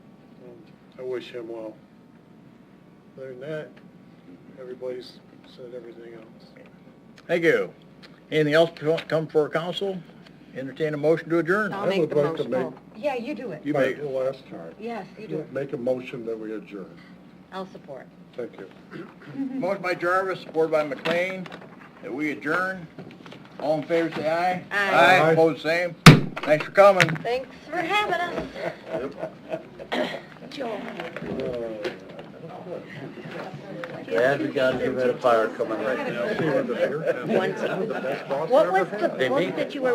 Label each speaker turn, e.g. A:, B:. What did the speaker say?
A: I wish him well. Other than that, everybody's said everything else.
B: Thank you. Anything else co- come for council? Entertain a motion to adjourn.
C: I'll make the
A: would like to
C: motion.
A: make-
C: Yeah, you do it.
B: You make-
A: Like the last time.
C: Yes, you do it.
A: Make a motion that we adjourn.
C: I'll support.
A: Thank you.
B: Motion by Jarvis, supported by McLean, that we adjourn. All in favor, say aye.
C: Aye.
A: Aye.
B: opposed, same. Thanks for coming.
C: Thanks for having us, Joe.
D: Yeah, we got a red fire coming right now.
C: What was the book that you were